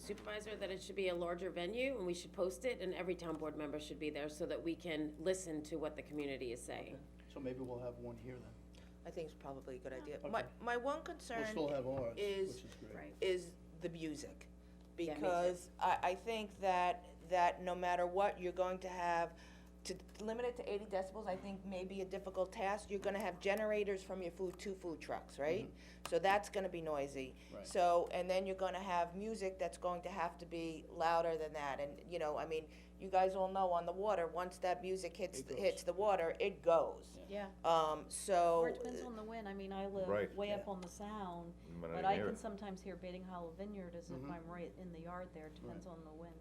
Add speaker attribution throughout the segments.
Speaker 1: supervisor that it should be a larger venue and we should post it and every town board member should be there so that we can listen to what the community is saying.
Speaker 2: So maybe we'll have one here then.
Speaker 3: I think it's probably a good idea.
Speaker 2: Okay.
Speaker 3: My, my one
Speaker 2: We'll
Speaker 3: concern
Speaker 2: still have ours, which
Speaker 3: is-
Speaker 2: is great.
Speaker 3: is the music.
Speaker 1: Yeah, me too.
Speaker 3: Because I, I think that, that no matter what, you're going to have, to limit it to eighty decibels, I think may be a difficult task. You're gonna have generators from your food, two food trucks, right? So that's gonna be noisy.
Speaker 2: Mm-hmm. Right.
Speaker 3: So, and then you're gonna have music that's going to have to be louder than that. And, you know, I mean, you guys all know on the water, once that music hits,
Speaker 2: It goes.
Speaker 3: hits the water, it goes.
Speaker 4: Yeah,
Speaker 3: Um, so.
Speaker 4: or it depends on the wind, I mean, I live
Speaker 5: Right.
Speaker 4: way up
Speaker 2: Yeah.
Speaker 4: on the sound,
Speaker 5: You might not
Speaker 4: but
Speaker 5: even
Speaker 4: I
Speaker 5: hear
Speaker 4: can
Speaker 5: it.
Speaker 4: sometimes hear Baiting Hollow Vineyard as if
Speaker 2: Mhm.
Speaker 4: I'm right in the yard there, it depends on the wind.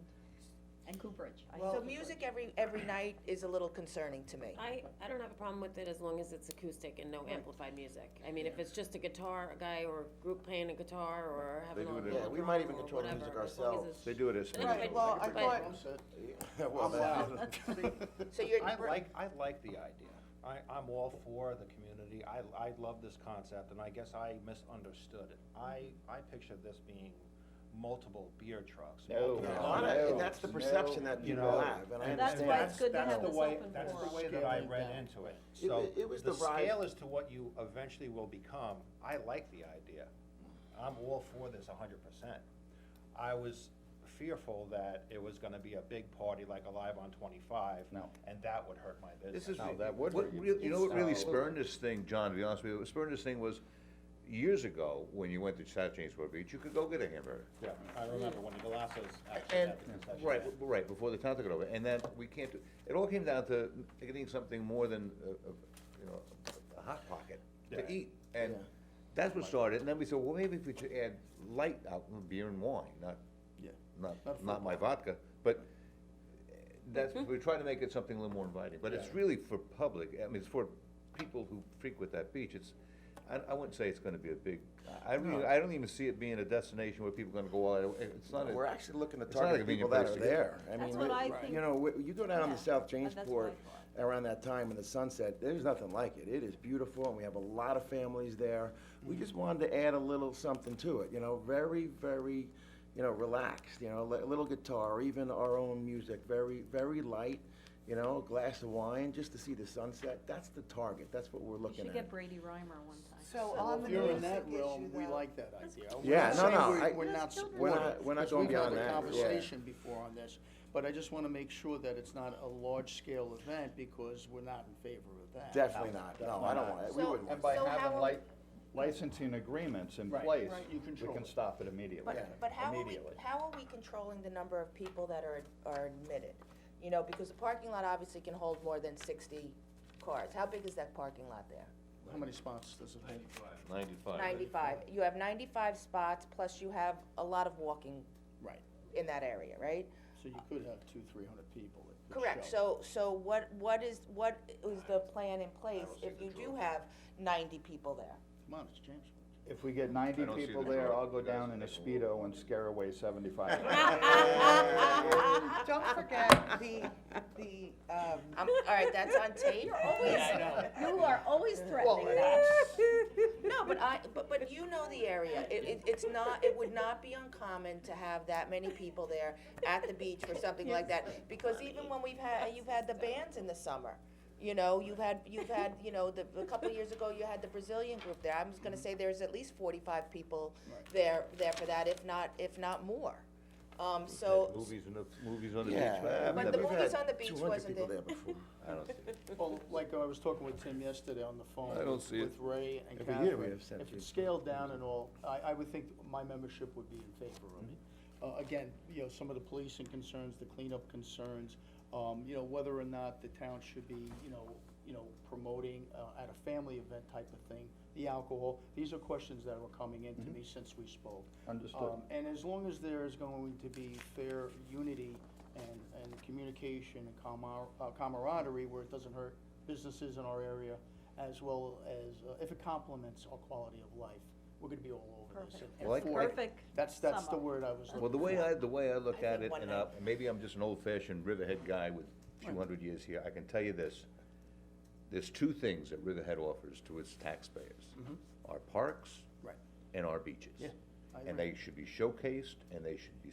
Speaker 4: And Cooperage, I
Speaker 3: So
Speaker 4: hear
Speaker 3: music
Speaker 4: Cooperage.
Speaker 3: every, every night is a little concerning to me.
Speaker 1: I, I don't have a problem with it as long as it's acoustic and no amplified music. I mean, if it's just a guitar, a guy or a group playing a guitar or
Speaker 5: They
Speaker 1: having a
Speaker 5: do
Speaker 1: little
Speaker 5: it in-
Speaker 1: drum
Speaker 5: Yeah,
Speaker 6: we might even
Speaker 1: or
Speaker 6: control the
Speaker 1: whatever,
Speaker 6: music
Speaker 1: as long as
Speaker 6: ourselves.
Speaker 1: it's-
Speaker 5: They do it as.
Speaker 1: Right,
Speaker 5: music.
Speaker 3: well, I
Speaker 5: It's a-
Speaker 3: thought-
Speaker 2: Drum set.
Speaker 6: Yeah, well,
Speaker 2: I'm
Speaker 6: that's-
Speaker 2: loud.
Speaker 3: So you're,
Speaker 7: I like, I like the idea. I, I'm all for the community. I, I love this concept, and I guess I misunderstood it. I, I pictured this being multiple beer trucks.
Speaker 5: No.
Speaker 7: multiple-
Speaker 6: A lot
Speaker 5: No,
Speaker 6: of- that's the perception that
Speaker 7: You
Speaker 6: people
Speaker 7: know,
Speaker 6: have, and I
Speaker 4: And that's
Speaker 6: understand.
Speaker 4: why it's good to
Speaker 7: that's
Speaker 4: have
Speaker 7: the
Speaker 4: this
Speaker 7: way-
Speaker 4: open
Speaker 7: That's the
Speaker 4: forum.
Speaker 7: way that I
Speaker 2: Scaling
Speaker 7: read
Speaker 2: down.
Speaker 7: into it.
Speaker 6: It-
Speaker 7: So,
Speaker 6: it was
Speaker 7: the
Speaker 6: the rise-
Speaker 7: scale as to what you eventually will become, I like the idea. I'm all for this a hundred percent. I was fearful that it was gonna be a big party like Alive on Twenty-Five.
Speaker 2: No.
Speaker 7: And that would hurt my business.
Speaker 6: This is,
Speaker 5: No, that would.
Speaker 6: what
Speaker 5: hurt
Speaker 6: real-
Speaker 5: You know what really
Speaker 6: It's-
Speaker 5: spurned this thing, John, to be honest with you, what spurned this thing was, years ago, when you went to South Jamesport Beach, you could go get a hamburger.
Speaker 7: Yeah, I remember when the Galassos actually
Speaker 5: And,
Speaker 7: had the concession.
Speaker 5: right, b- right, before the town took it over, and then we can't do, it all came down to getting something more than, a- a- you know, a hot pocket
Speaker 7: Yeah.
Speaker 5: to eat. And
Speaker 6: Yeah.
Speaker 5: that's what started, and then we said, well, maybe if we should add light out, beer and wine, not,
Speaker 2: Yeah. Not
Speaker 5: not,
Speaker 2: full
Speaker 5: not my vodka, but uh, that's,
Speaker 6: Hmm.
Speaker 5: we're trying to make it something a little more inviting, but it's
Speaker 7: Yeah.
Speaker 5: really for public, I mean, it's for people who frequent that beach, it's, I, I wouldn't say it's gonna be a big, I really, I don't even see it being a destination where people are gonna go all, out. it's not a.
Speaker 6: We're actually looking to
Speaker 5: It's not a
Speaker 6: target
Speaker 5: convenient
Speaker 6: people that
Speaker 5: place
Speaker 6: are
Speaker 5: to
Speaker 6: there. I
Speaker 4: That's
Speaker 6: mean,
Speaker 4: what
Speaker 6: we-
Speaker 4: I
Speaker 6: You
Speaker 4: think.
Speaker 6: know, we- you go down
Speaker 4: Yeah.
Speaker 6: to South
Speaker 4: And that's what I
Speaker 6: Jamesport
Speaker 4: thought.
Speaker 6: around that time in the sunset, there's nothing like it. It is beautiful and we have a lot of families there.
Speaker 3: Mm.
Speaker 6: We just wanted to add a little something to it, you know, very, very, you know, relaxed, you know, li- a little guitar, even our own music, very, very light, you know, a glass of wine, just to see the sunset. That's the target. That's what we're
Speaker 4: You
Speaker 6: looking
Speaker 4: should
Speaker 6: at.
Speaker 4: get Brady Reimer one time.
Speaker 8: So
Speaker 2: Well,
Speaker 8: on
Speaker 2: if
Speaker 8: the
Speaker 2: you're in
Speaker 8: music
Speaker 2: that
Speaker 8: issue
Speaker 2: realm, we
Speaker 8: though,
Speaker 2: like that idea.
Speaker 6: Yeah, no, no, I-
Speaker 2: We're not
Speaker 4: Those children-
Speaker 2: supporting.
Speaker 6: We're not- we're not going beyond that, yeah.
Speaker 2: We've had a conversation before on this, but I just wanna make sure that it's not a large-scale event, because we're not in favor of that.
Speaker 6: Definitely not. No, I don't want it. We
Speaker 1: So-
Speaker 6: wouldn't want
Speaker 9: And by
Speaker 1: So how
Speaker 9: having
Speaker 1: are-
Speaker 9: lic- licensing agreements in
Speaker 2: Right.
Speaker 9: place,
Speaker 2: Right, you
Speaker 9: we
Speaker 2: control
Speaker 9: can
Speaker 2: it.
Speaker 9: stop it immediately,
Speaker 3: but, but how are we,
Speaker 9: immediately.
Speaker 3: how are we controlling the number of people that are, are admitted? You know, because the parking lot obviously can hold more than sixty cars. How big is that parking lot there?
Speaker 2: How many spots does it hold?
Speaker 5: Ninety-five.
Speaker 3: Ninety-five. You have ninety-five spots, plus you have a lot of walking
Speaker 2: Right,
Speaker 3: in that area, right?
Speaker 2: so you could have two, three hundred people. that could
Speaker 3: Correct,
Speaker 2: show.
Speaker 3: so, so what, what is, what is the plan in place if you do have ninety people there?
Speaker 2: Come on, it's James.
Speaker 9: If we get ninety
Speaker 5: I don't see
Speaker 9: people
Speaker 5: the
Speaker 9: there,
Speaker 5: trouble.
Speaker 9: I'll go
Speaker 5: You guys
Speaker 9: down in a
Speaker 5: make a little-
Speaker 9: Speedo and scare away seventy-five.
Speaker 8: don't forget the, the, um,
Speaker 3: I'm, all right, that's on tape?
Speaker 4: You are always threatening that.
Speaker 3: No, but I, but, but you know the area, it, it, it's not, it would not be uncommon to have that many people there at the beach for something like that, because even when we've had, you've had the bands in the summer, you know, you've had, you've had, you know, the, a couple of years ago, you had the Brazilian group there, I'm just gonna say there's at least forty-five people
Speaker 2: Right.
Speaker 3: there, there for that, if not, if not more. Um, so,
Speaker 5: Movies and the, movies on the beach.
Speaker 6: Yeah.
Speaker 5: I've
Speaker 3: But
Speaker 5: never-
Speaker 3: the
Speaker 6: We've
Speaker 3: movies
Speaker 6: had
Speaker 3: on the beach
Speaker 6: 200
Speaker 3: wasn't
Speaker 6: people
Speaker 3: there.
Speaker 6: before.
Speaker 5: I don't see it.
Speaker 2: Well, like I was talking with Tim yesterday on the phone.
Speaker 5: I don't see it.
Speaker 2: With Ray and
Speaker 6: Every year we
Speaker 2: Catherine.
Speaker 6: have seven
Speaker 2: If
Speaker 6: people.
Speaker 2: it's scaled down and all, I, I would think my membership would be in favor of it.
Speaker 6: Mm-hmm.
Speaker 2: Uh, again, you know, some of the policing concerns, the cleanup concerns, um, you know, whether or not the town should be, you know, you know, promoting, uh, at a family event type of thing, the alcohol, these are questions that were coming in to
Speaker 6: Mm-hmm.
Speaker 2: me since we spoke.
Speaker 9: Understood.
Speaker 2: Um, and as long as there is going to be fair unity and, and communication and camar- uh, camaraderie where it doesn't hurt businesses in our area, as well as, uh, if it complements our quality of life, we're gonna be all over this. and- and
Speaker 5: Like-
Speaker 2: for it.
Speaker 4: Perfect
Speaker 2: That's, that's the
Speaker 4: sum up.
Speaker 2: word I was looking for.
Speaker 5: Well, the way I, the way I look
Speaker 3: I
Speaker 5: at it,
Speaker 3: think one
Speaker 5: and I, maybe I'm just an old-fashioned Riverhead guy with two hundred years here, I can tell you this. There's two things that Riverhead offers to its taxpayers. Our parks
Speaker 2: Right.
Speaker 5: and our beaches.
Speaker 2: Yeah, I
Speaker 5: And they should be showcased, and they should be